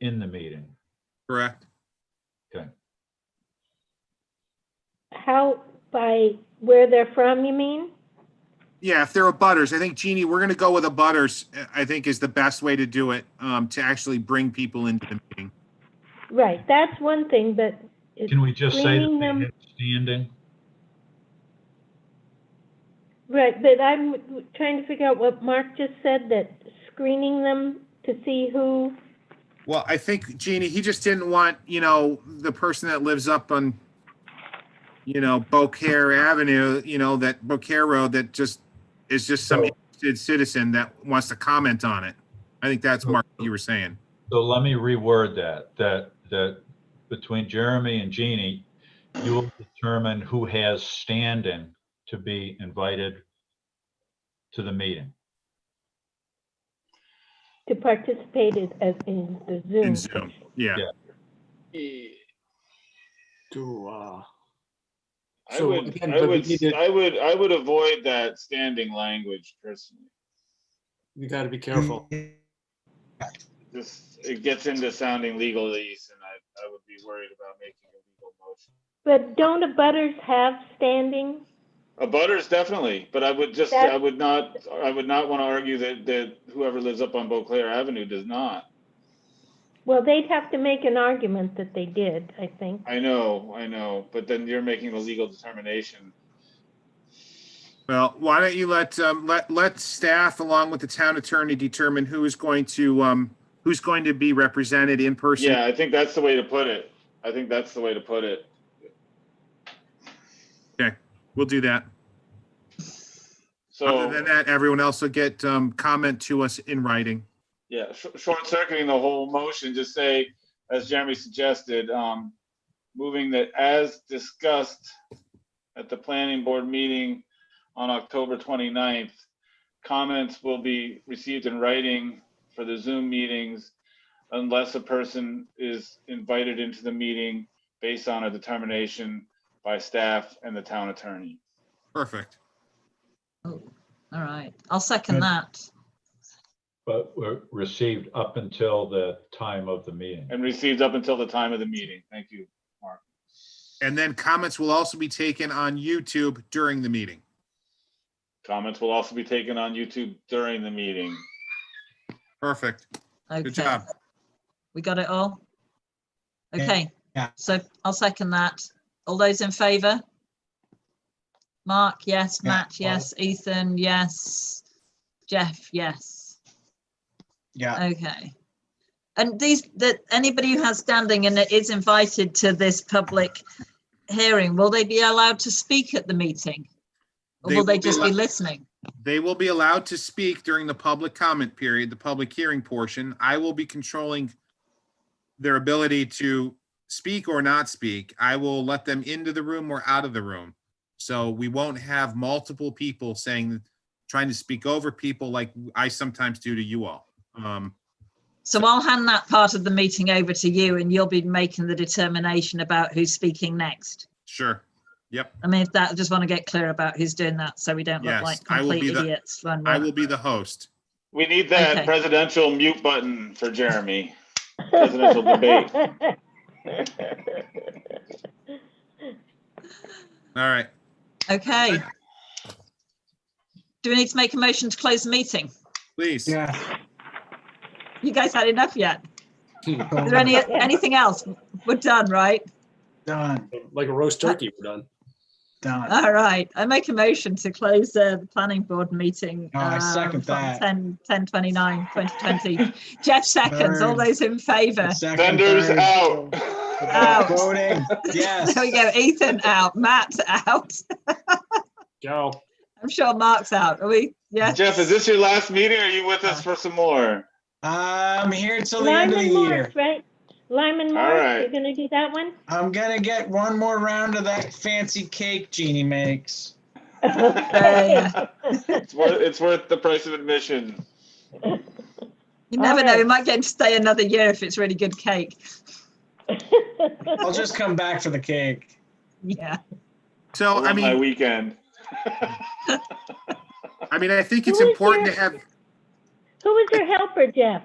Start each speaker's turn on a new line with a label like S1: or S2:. S1: in the meeting.
S2: correct?
S3: How, by where they're from, you mean?
S2: Yeah, if there are butters, I think Jeannie, we're gonna go with a butters, uh, I think is the best way to do it, um, to actually bring people into the meeting.
S3: Right, that's one thing, but it-
S1: Can we just say that
S3: Bringing
S1: they
S3: them-
S1: have standing?
S3: Right, but I'm trying to figure out what Mark just said, that screening them to see who,
S2: Well, I think Jeannie, he just didn't want, you know, the person that lives up on, you know, Beaucaire Avenue, you know, that Beaucaire Road that just is just some
S1: So-
S2: interested citizen that wants to comment on it. I think that's Mark, you were saying.
S1: So let me reword that, that, that between Jeremy and Jeannie, you will determine who has standing to be invited to the meeting.
S3: to participate in, as in the
S2: In
S3: Zoom.
S2: Zoom, yeah.
S4: Eh,
S5: to, uh,
S4: I
S5: So
S4: would,
S5: again,
S4: I
S5: but we
S4: would,
S5: need to-
S4: I would, I would avoid that standing language personally.
S5: you gotta be careful.
S4: This, it gets into sounding legalese and I, I would be worried about making a legal motion.
S3: But don't the butters have standing?
S4: A butters definitely, but I would just,
S3: That-
S4: I would not, I would not want to argue that, that whoever lives up on Beauclair Avenue does not.
S3: Well, they'd have to make an argument that they did, I think.
S4: I know, I know, but then you're making the legal determination.
S2: Well, why don't you let, um, let, let staff along with the town attorney determine who is going to, um, who's going to be represented in person.
S4: Yeah, I think that's the way to put it. I think that's the way to put it.
S2: We'll do that. Other than
S4: So,
S2: that, everyone else will get, um, comment to us in writing.
S4: yeah, sh- short circuiting the whole motion, just say, as Jeremy suggested, um, moving that as discussed at the planning board meeting on October 29th, comments will be received in writing for the Zoom meetings unless a person is invited into the meeting based on a determination by staff and the town attorney.
S2: Perfect.
S6: Oh, all right. I'll second that.
S1: But were received up until the time of the meeting.
S4: And received up until the time of the meeting. Thank you.
S2: And then comments will also be taken on YouTube during the meeting.
S4: Comments will also be taken on YouTube during the meeting.
S2: Perfect. Good
S6: Okay,
S2: job.
S6: we got it all?
S7: Yeah,
S6: Okay,
S7: yeah.
S6: so I'll second that. All those in favour? Mark, yes.
S7: Yeah,
S6: Matt,
S7: all-
S6: yes. Ethan, yes. Jeff, yes.
S7: Yeah,
S6: Okay. And these, that, anybody who has standing and is invited to this public hearing, will they be allowed to speak at the meeting? Or
S2: They
S6: will they
S2: will be
S6: just be
S2: allowed-
S6: listening?
S2: They will be allowed to speak during the public comment period, the public hearing portion. I will be controlling their ability to speak or not speak. I will let them into the room or out of the room. So we won't have multiple people saying, trying to speak over people like I sometimes do to you all. Um,
S6: So I'll hand that part of the meeting over to you and you'll be making the determination about who's speaking next.
S2: sure.
S6: I mean, that, I just want to get clear about who's doing that so we don't
S2: Yes,
S6: look like
S2: I will be
S6: complete
S2: the-
S6: idiots. when
S2: I
S6: we're-
S2: will be the host.
S4: We need that
S6: Okay.
S4: presidential mute button for Jeremy. Presidential debate.
S2: All right.
S6: Okay. Do we need to make a motion to close the meeting?
S2: Please.
S7: yeah.
S6: You guys had enough yet? Is there
S7: so
S6: any, anything else? We're done, right?
S7: Done,
S5: Like a roast turkey, we're done.
S7: done.
S6: All right. I make a motion to close uh, the planning board meeting.
S7: Oh, I
S6: um,
S7: second
S6: from
S7: that.
S6: 10, 10:29, 2020. Jeff seconds. All
S7: Third.
S6: those in favour?
S7: Second,
S4: Vendors
S7: third.
S4: out.
S6: Out.
S7: Voting, yes.
S6: There we go. Ethan out, Matt out.
S5: Ciao.
S6: I'm sure Mark's out. Are we? Yes.
S4: Jeff, is this your last meeting? or Are you with us for some more?
S7: I'm here till the end of the
S3: Lyman
S7: year.
S3: Morse, right? Lyman
S4: All
S3: Morse,
S4: right.
S3: you're gonna do that one?
S7: I'm gonna get one more round of that fancy cake Jeannie makes.
S6: Yeah.
S4: It's worth, it's worth the price of admission.
S6: You never know. We
S3: Alright.
S6: might get him to stay another year if it's really good cake.
S7: I'll just come back for the cake.
S6: Yeah.
S2: So, I
S4: Ruin
S2: mean.
S4: My weekend.
S2: I mean, I think
S3: Who
S2: it's
S3: is
S2: important to
S3: there?
S2: have,
S3: Who was your helper, Jeff?